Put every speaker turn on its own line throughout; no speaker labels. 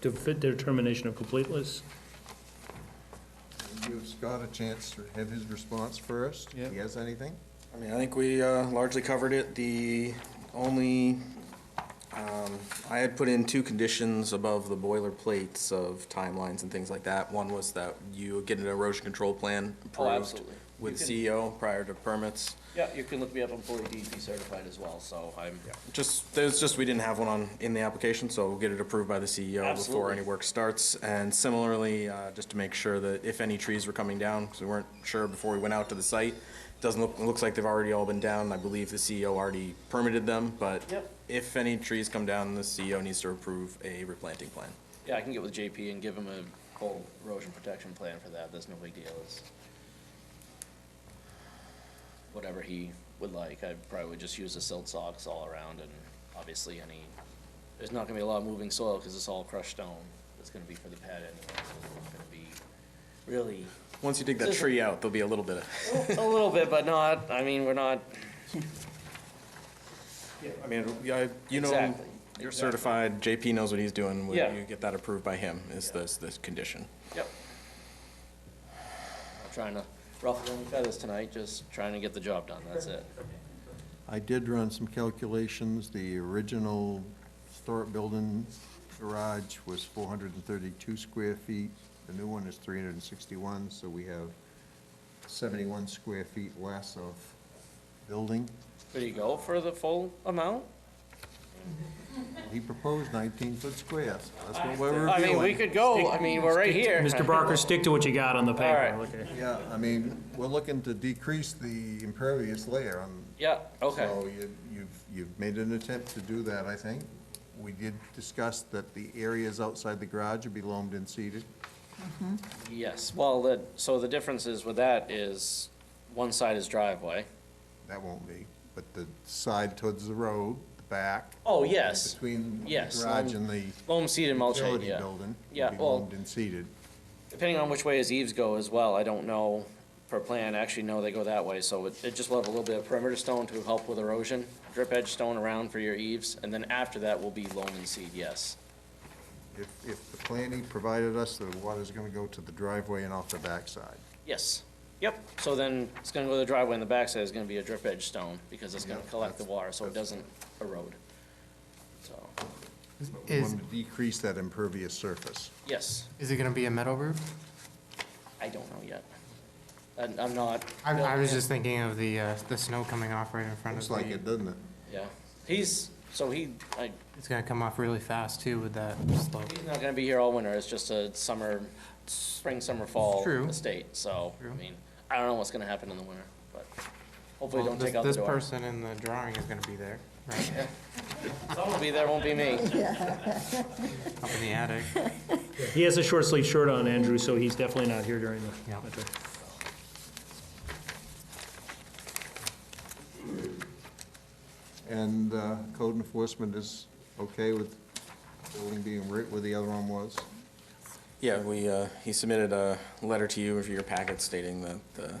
to fit their determination of completeness?
Give Scott a chance to have his response first. If he has anything?
I mean, I think we uh, largely covered it. The only, um, I had put in two conditions above the boilerplates of timelines and things like that. One was that you get an erosion control plan
Oh,
approved
absolutely.
with E
You can-
CEO prior to permits.
Yeah, you can look me up, I'm fully DEP certified as well, so I'm,
Just, there's just, we didn't have one on, in the application, so we'll get it approved by the CEO before
Absolutely.
any work starts. And similarly, uh, just to make sure that if any trees were coming down, because we weren't sure before we went out to the site, doesn't look, it looks like they've already all been down. I believe the CEO already permitted them, but
Yep.
if any trees come down, the CEO needs to approve a replanting plan.
yeah, I can get with JP and give him a whole erosion protection plan for that, that's no big deal, it's whatever he would like, I probably would just use the silt socks all around and obviously any, there's not gonna be a lot of moving soil, cause it's all crushed stone, it's gonna be for the pad anyway, so it's not gonna be really
Once you dig that tree out, there'll be a little bit of,
A little bit, but not, I mean, we're not,
I mean, yeah, you know,
Exactly,
you're
exactly.
certified, JP knows what he's doing. Will
Yeah.
you get that approved by him, is this, this condition.
yep. Not Trying to ruffle any feathers tonight, just trying to get the job done, that's it.
I did run some calculations. The original historic building garage was 432 square feet. The new one is 361, so we have 71 square feet less of building.
There you go, for the full amount?
He proposed 19-foot squares. That's what we're
I mean, we
reviewing.
could go, Oh, I mean, we're right here.
Mr. Barker, stick to what you got on the paper.
All
Okay.
Yeah, I mean, we're looking to decrease the impervious layer on
Yeah, okay,
So you- you've, you've made an attempt to do that, I think. We did discuss that the areas outside the garage would be loamed and seeded.
yes, well, the, so the difference is with that is, one side is driveway.
That won't be, but the side towards the road, the back,
Oh, yes,
between the
Yes,
garage
loam-
and the
loam seeded mulching,
utility
yeah.
building,
Yeah,
will be
well-
loamed and seeded.
Depending on which way his eaves go as well, I don't know per plan, actually, no, they go that way, so it, it just will have a little bit of perimeter stone to help with erosion, drip edge stone around for your eaves, and then after that will be loam and seed, yes.
If, if the plan he provided us, the water's gonna go to the driveway and off the backside.
Yes, yep, so then it's gonna go to the driveway, and the backside is gonna be a drip edge stone, because it's gonna
Yeah,
collect the
that's-
water, so it
that's-
doesn't erode. So,
But We
Is,
want to decrease that impervious surface.
yes,
is it gonna be a metal roof?
I don't know yet. And I'm not.
I, I was just thinking of the, uh, the snow coming off right in front of
Looks like
the,
it, doesn't it?
Yeah, he's, so he, I,
it's gonna come off really fast too with that slope.
He's not gonna be here all winter, it's just a summer, spring, summer, fall
True.
estate, so, I
True.
mean, I don't know what's gonna happen in the winter, but hopefully
Well,
don't
this-
take out the
This
door.
person in the drawing is gonna be there, right,
Someone will be there, won't be me.
up in the attic.
He has a short sleeve shirt on, Andrew, so he's definitely not here during the.
Yeah.
okay.
And uh, code enforcement is okay with building being right where the other one was?
Yeah, we, uh, he submitted a letter to you for your packet stating that the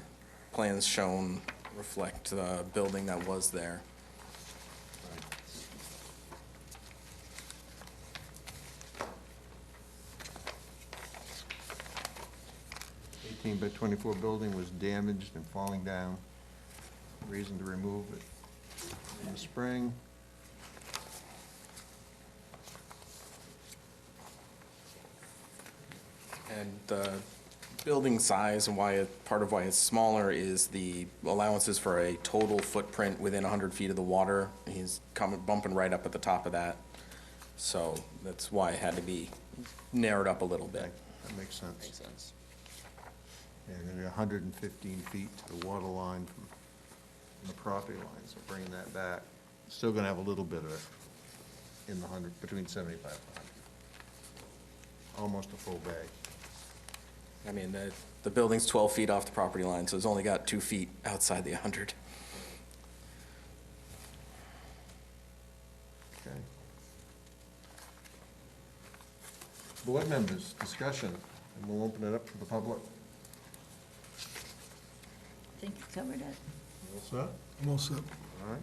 plans shown reflect the building that was there.
Eighteen by twenty-four building was damaged and falling down. Reason to remove it in the spring.
And the building size and why, it- part of why it's smaller is the allowances for a total footprint within 100 feet of the water. He's coming, bumping right up at the top of that. So that's why it had to be narrowed up a little bit.
That makes
Makes
sense.
sense.
And then hundred and fifteen feet to the water line from the property line, so bringing that back. Still gonna have a little bit of it in the hundred, between seventy-five and hundred. Almost a full bag.
I mean, the, the building's 12 feet off the property line, so it's only got two feet outside the 100.
Okay. Board members, discussion, and we'll open it up to the public.
I think you covered it.
All right.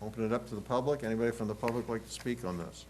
Open it up to the public. Anybody from the public like to speak on this?